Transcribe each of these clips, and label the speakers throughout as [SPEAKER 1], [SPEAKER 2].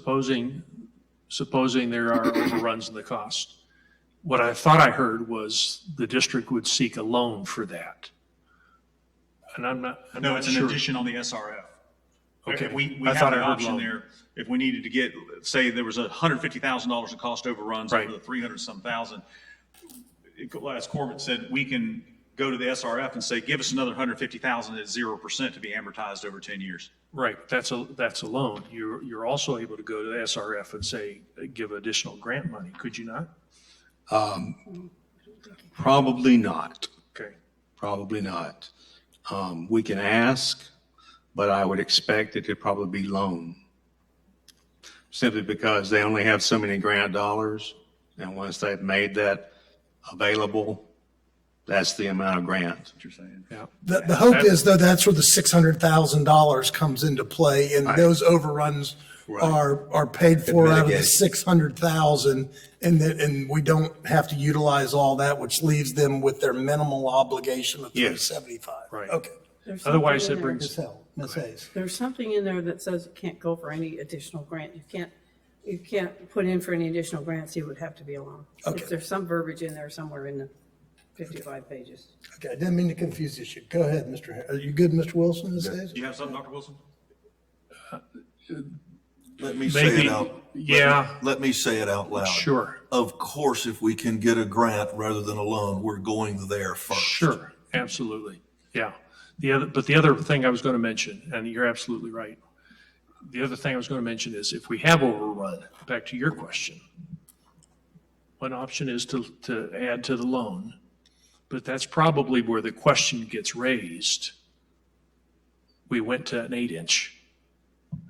[SPEAKER 1] supposing, supposing there are overruns in the cost. What I thought I heard was the district would seek a loan for that. And I'm not, I'm
[SPEAKER 2] No,
[SPEAKER 1] not
[SPEAKER 2] it's an
[SPEAKER 1] sure.
[SPEAKER 2] addition on the SRF.
[SPEAKER 1] Okay.
[SPEAKER 2] If we, we
[SPEAKER 1] I
[SPEAKER 2] have
[SPEAKER 1] thought
[SPEAKER 2] an
[SPEAKER 1] I heard
[SPEAKER 2] option
[SPEAKER 1] loan.
[SPEAKER 2] there, if we needed to get, say there was a hundred fifty thousand dollars of cost overruns
[SPEAKER 1] Right.
[SPEAKER 2] over the three hundred some thousand. it- As Corbett said, we can go to the SRF and say, give us another hundred fifty thousand at zero percent to be amortized over ten years.
[SPEAKER 1] Right, that's a, that's a loan. You're, you're also able to go to the SRF and say, give additional grant money, could you not?
[SPEAKER 3] Probably not,
[SPEAKER 1] Okay,
[SPEAKER 3] probably not. Um, we can ask, but I would expect it to probably be loan. Simply because they only have so many grant dollars, and once they've made that available, that's the amount of grant.
[SPEAKER 2] What you're saying.
[SPEAKER 1] yeah.
[SPEAKER 4] The, the hope is though, that's where the six hundred thousand dollars comes into play and those overruns are, are paid for out of the
[SPEAKER 3] Mitigated.
[SPEAKER 4] six hundred thousand. And that, and we don't have to utilize all that, which leaves them with their minimal obligation of three
[SPEAKER 3] Yes.
[SPEAKER 4] seventy-five.
[SPEAKER 1] Right.
[SPEAKER 4] Okay.
[SPEAKER 5] There's something
[SPEAKER 1] Otherwise,
[SPEAKER 5] in
[SPEAKER 1] it
[SPEAKER 5] there
[SPEAKER 1] brings.
[SPEAKER 4] Ms. Hill, Ms. Hayes.
[SPEAKER 5] There's something in there that says you can't go for any additional grant. You can't, you can't put in for any additional grants. You would have to be alone.
[SPEAKER 4] Okay.
[SPEAKER 5] There's some verbiage in there somewhere in the 55 pages.
[SPEAKER 4] Okay, I didn't mean to confuse this. You- Go ahead, Mr. Har- Are you good, Mr. Wilson, Ms. Hayes?
[SPEAKER 2] Do you have something, Dr. Wilson?
[SPEAKER 6] Let me say
[SPEAKER 1] Maybe-
[SPEAKER 6] it out.
[SPEAKER 1] yeah.
[SPEAKER 6] Let me say it out loud.
[SPEAKER 1] Sure.
[SPEAKER 6] Of course, if we can get a grant rather than a loan, we're going there first.
[SPEAKER 1] Sure, absolutely, yeah. The other, but the other thing I was going to mention, and you're absolutely right. The other thing I was going to mention is if we have overrun, back to your question. One option is to, to add to the loan, but that's probably where the question gets raised. We went to an eight inch.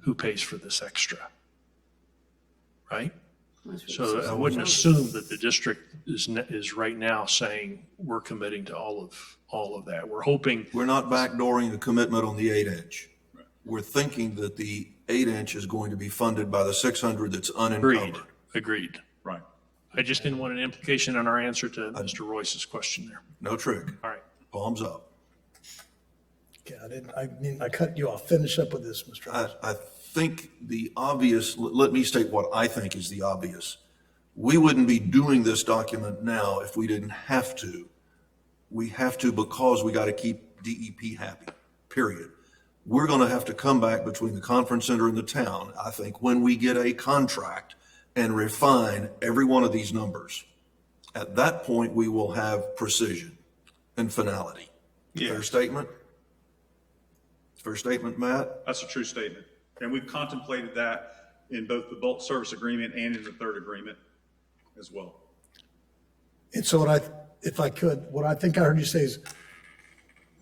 [SPEAKER 1] Who pays for this extra? Right? So I wouldn't assume that the district is, ne- is right now saying we're committing to all of, all of that. We're hoping,
[SPEAKER 6] We're not backdooring the commitment on the eight inch. We're thinking that the eight inch is going to be funded by the six hundred that's
[SPEAKER 1] agreed,
[SPEAKER 6] unencumbered.
[SPEAKER 1] agreed.
[SPEAKER 2] Right.
[SPEAKER 1] I just didn't want an implication on our answer to Mr. Royce's question there.
[SPEAKER 6] No trick.
[SPEAKER 1] All right.
[SPEAKER 6] Palms up.
[SPEAKER 4] Okay, I didn't, I mean, I cut you off. Finish up with this, Mr.
[SPEAKER 6] I,
[SPEAKER 4] Wilson.
[SPEAKER 6] I think the obvious, let let me state what I think is the obvious. We wouldn't be doing this document now if we didn't have to. We have to because we got to keep DEP happy, period. We're going to have to come back between the conference center and the town, I think, when we get a contract and refine every one of these numbers. At that point, we will have precision and finality. Fair statement? Fair statement, Matt?
[SPEAKER 2] That's a true statement. And we've contemplated that in both the bulk service agreement and in the third agreement as well.
[SPEAKER 4] And so what I, if I could, what I think I heard you say is,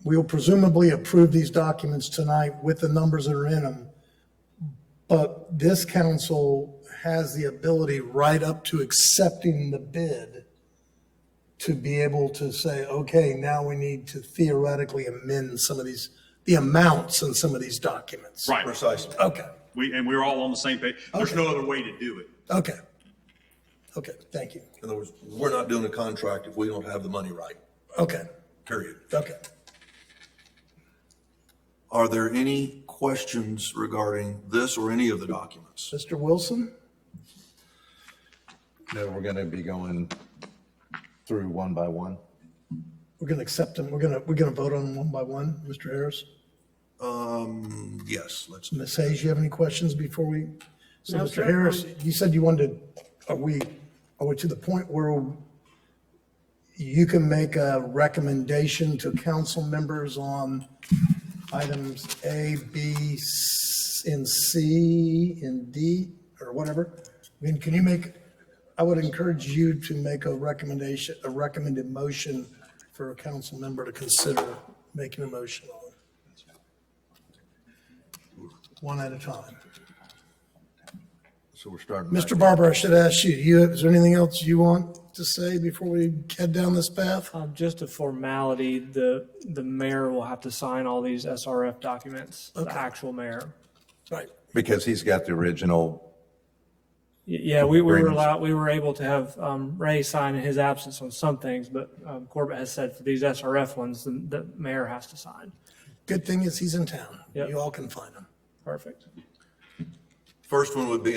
[SPEAKER 4] we will presumably approve these documents tonight with the numbers that are in them. But this council has the ability right up to accepting the bid to be able to say, okay, now we need to theoretically amend some of these, the amounts in some of these documents.
[SPEAKER 2] Right.
[SPEAKER 6] Precisely.
[SPEAKER 4] Okay,
[SPEAKER 2] We, and we're all on the same page. There's no other way to do it.
[SPEAKER 4] okay. Okay, thank you.
[SPEAKER 6] In other words, we're not doing a contract if we don't have the money right,
[SPEAKER 4] Okay,
[SPEAKER 6] period.
[SPEAKER 4] okay.
[SPEAKER 6] Are there any questions regarding this or any of the documents?
[SPEAKER 4] Mr. Wilson?
[SPEAKER 7] No, we're going to be going through one by one.
[SPEAKER 4] We're going to accept them. We're going to, we're going to vote on them one by one. Mr. Harris,
[SPEAKER 6] Um, yes, let's,
[SPEAKER 4] Ms. Hayes, you have any questions before we? So
[SPEAKER 5] No,
[SPEAKER 4] Mr.
[SPEAKER 5] sir.
[SPEAKER 4] Harris, you said you wanted, are we, are we to the point where you can make a recommendation to council members on items A, B, s- and C, and D, or whatever? I mean, can you make, I would encourage you to make a recommendation, a recommended motion for a council member to consider making a motion on. One at a time.
[SPEAKER 7] So we're starting. back
[SPEAKER 4] Mr. Barber, I should ask you, you, is there anything else you want to say before we head down this path?
[SPEAKER 8] Um, Just a formality, the, the mayor will have to sign all these SRF documents, the actual mayor.
[SPEAKER 4] Right.
[SPEAKER 7] Because he's got the original,
[SPEAKER 8] Y- Yeah, we we were
[SPEAKER 7] Agreements.
[SPEAKER 8] allowed, we were able to have um, Ray sign in his absence on some things, but um, Corbett has said for these SRF ones, the, the mayor has to sign.
[SPEAKER 4] Good thing is he's in town.
[SPEAKER 8] Yep.
[SPEAKER 4] You all can find him.
[SPEAKER 8] Perfect.
[SPEAKER 6] first one would be